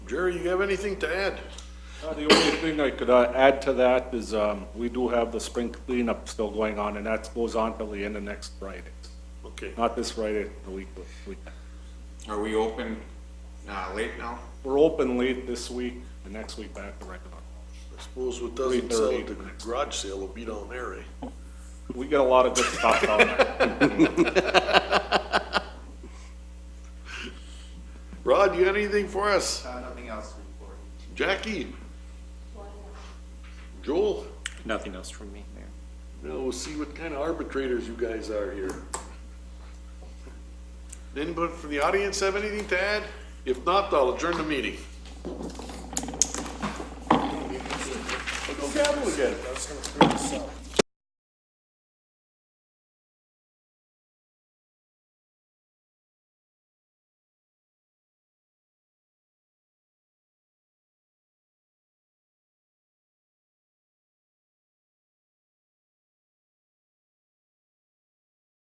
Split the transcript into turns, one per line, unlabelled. Jerry, you have anything to add?
Uh, The only thing I could uh, add to that is um, we do have the spring cleanup still going on, and that goes on till the end of next Friday.
Okay.
Not this Friday, the week, the week.
Are we open, uh, late now?
We're open late this week, and next week back to regular.
I suppose what doesn't sell at the
3:30.
garage sale will be down there, eh?
We get a lot of good stuff down there.
Rod, you got anything for us?
Uh, nothing else to report.
Jackie? Joel?
Nothing else from me, Mayor.
Now we'll see what kind of arbitrators you guys are here. Anybody from the audience have anything to add? If not, I'll adjourn the meeting. Go gavel again.
I was gonna print this out.